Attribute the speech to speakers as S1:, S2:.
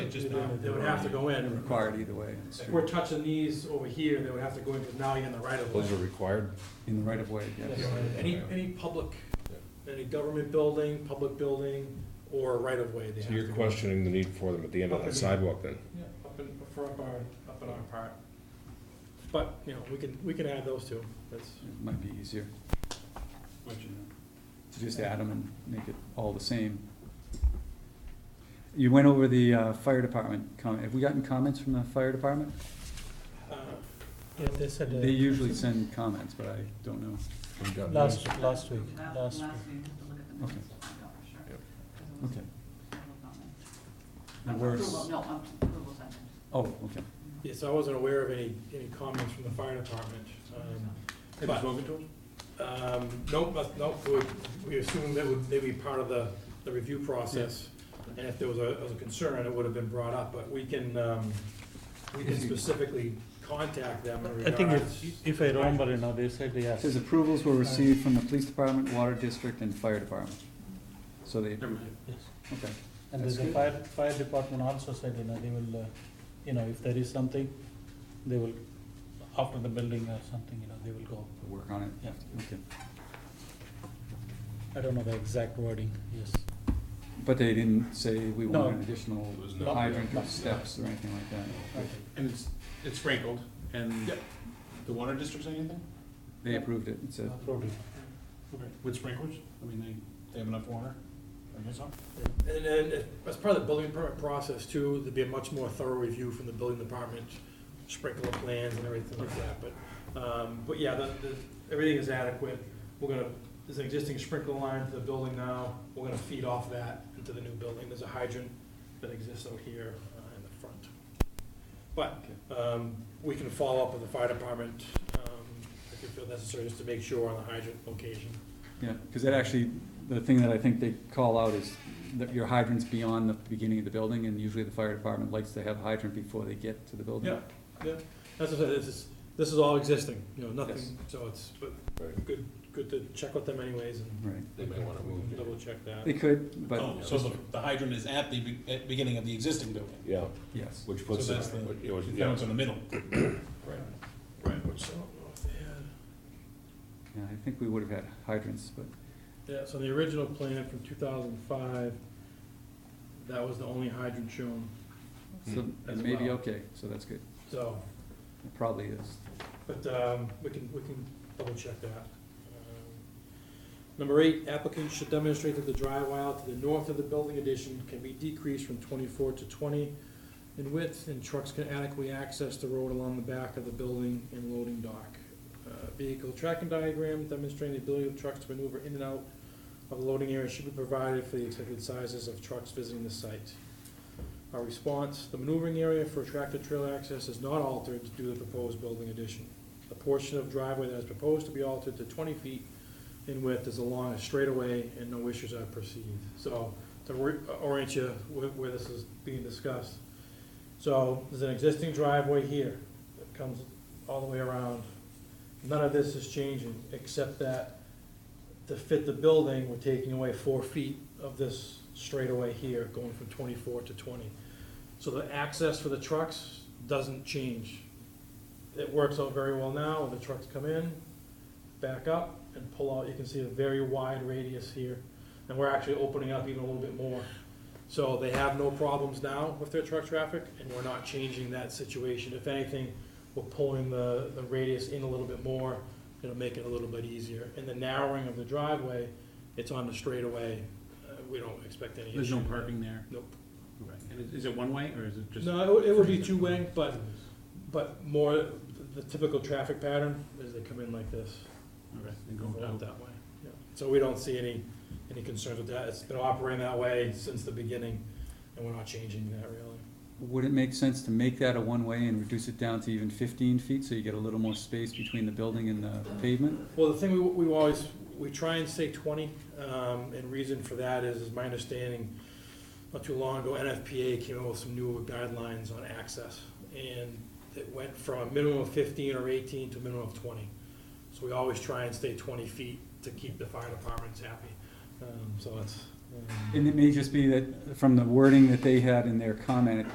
S1: would just, not- they would have to go in.
S2: required either way,
S1: If we're touching these over here, they would have to go in, because now you're in the right of way.
S3: Those are required?
S2: in the right of way, yes.
S1: Any, any public, any government building, public building, or right of way, they have
S3: So
S1: to.
S3: you're
S1: go.
S3: questioning the need for them at the end of that sidewalk then?
S1: Yeah, up in, for up our, up in our part. But, you know, we can, we can add those two, that's,
S2: It might be easier. To just add them and make it all the same. You went over the uh, fire department comment. Have we gotten comments from the fire department?
S1: uh,
S4: Yeah, they said
S2: They
S4: uh,
S2: usually send comments, but I don't know.
S4: last, last week, last
S5: Last, last
S4: week.
S5: week, have to look at the
S2: Okay.
S5: minutes, to find out for sure.
S3: Yep.
S5: 'cause it was
S2: Okay.
S5: approval comment.
S2: And
S5: Uh,
S2: where's-
S5: Approval, no, um, approval second.
S2: Oh, okay.
S1: yeah, so I wasn't aware of any, any comments from the fire department. um, but- Um, nope, that's- nope, we, we assumed that would, they'd be part of the, the review process. And if there was a, was a concern, it would have been brought up, but we can, um, we can specifically contact them in
S4: I think
S1: regards.
S4: if, if I remember, you know, they said
S2: It
S4: yes.
S2: says approvals were received from the police department, water district, and fire department. So they, okay.
S4: Yes. And there's a
S2: That's
S4: fire, fire department also said, you know, they will, uh, you know, if there is something, they will, after the building or something, you know, they will go.
S2: We'll Work on it,
S4: Yeah,
S2: okay.
S4: I don't know the exact wording, yes.
S2: But they didn't say we
S4: No.
S2: want an additional
S6: There's
S4: no-
S2: hydrant
S4: no.
S2: or steps or anything like that.
S6: And it's, it's sprinkled, and the water district's anything
S2: They approved it, it said,
S4: Approved it.
S6: with sprinklers? I mean, they, they have enough water, I guess so.
S1: And then, if- as part of the building permit process too, there'd be a much more thorough review from the building department, sprinkler plans and everything like that, but, um, but yeah, the, the, everything is adequate. We're gonna, there's an existing sprinkler line to the building now, we're gonna feed off that into the new building, there's a hydrant that exists out here uh, in the front. But, um, we can follow up with the fire department, um, if you feel necessary, just to make sure on the hydrant location.
S2: yeah, because that actually, the thing that I think they call out is that your hydrant's beyond the beginning of the building, and usually the fire department likes to have hydrant before they get to the building.
S1: Yeah, yeah, that's what I said, this is, this is all existing, you know,
S2: Yes.
S1: nothing, so it's, but, good, good to check with them anyways and
S2: Right,
S6: They may wanna move
S1: double check that.
S2: they could, but,
S6: Oh, so the, the hydrant is at the, be- at beginning of the existing building,
S3: Yeah,
S2: yes,
S3: which
S6: so
S3: puts
S6: that's
S3: it,
S6: the,
S3: which- it was-
S6: the
S3: yeah,
S6: one's in the middle.
S3: right.
S1: Right, which, so, yeah,
S2: yeah, I think we would have had hydrants, but,
S1: yeah, so the original plan from two thousand and five, that was the only hydrant shown,
S2: so it
S1: As
S2: may be
S1: well.
S2: okay, so that's good,
S1: so,
S2: it probably is.
S1: but, um, we can, we can double check that. Um, Number eight, applicants should demonstrate that the dry aisle to the north of the building addition can be decreased from twenty-four to twenty in width, and trucks can adequately access the road along the back of the building and loading dock. Uh, Vehicle tracking diagram demonstrating the ability of trucks to maneuver in and out of the loading area should be provided for the expected sizes of trucks visiting the site. Our response, the maneuvering area for tractor trailer access is not altered due to the proposed building addition. The portion of driveway that is proposed to be altered to twenty feet in width is along a straightaway and no issues are perceived. So to re- uh, orient you where, where this is being discussed. So there's an existing driveway here that comes all the way around. None of this is changing, except that to fit the building, we're taking away four feet of this straightaway here, going from twenty-four to twenty. So the access for the trucks doesn't change. It works out very well now, the trucks come in, back up and pull out, you can see a very wide radius here. And we're actually opening up even a little bit more. So they have no problems now with their truck traffic, and we're not changing that situation. If anything, we're pulling the, the radius in a little bit more, it'll make it a little bit easier. And the narrowing of the driveway, it's on the straightaway, uh, we don't expect any issue.
S6: There's no parking there?
S1: Nope.
S6: And is it one way, or is it just?
S1: No, it would, it would be two-way, but, but more, the typical traffic pattern is they come in like this.
S6: Okay, and
S1: Go
S6: going
S1: out
S6: out.
S1: that way, yeah. So we don't see any, any concerns with that. It's been operating that way since the beginning, and we're not changing that really.
S2: Would it make sense to make that a one-way and reduce it down to even fifteen feet, so you get a little more space between the building and the pavement?
S1: Well, the thing we, we always, we try and say twenty, um, and reason for that is, is my understanding, not too long ago, NFPA came out with some newer guidelines on access, and it went from a minimum of fifteen or eighteen to a minimum of twenty. So we always try and stay twenty feet to keep the fire departments happy, um, so um, it's. um,
S2: And it may just be that, from the wording that they had in their comment, it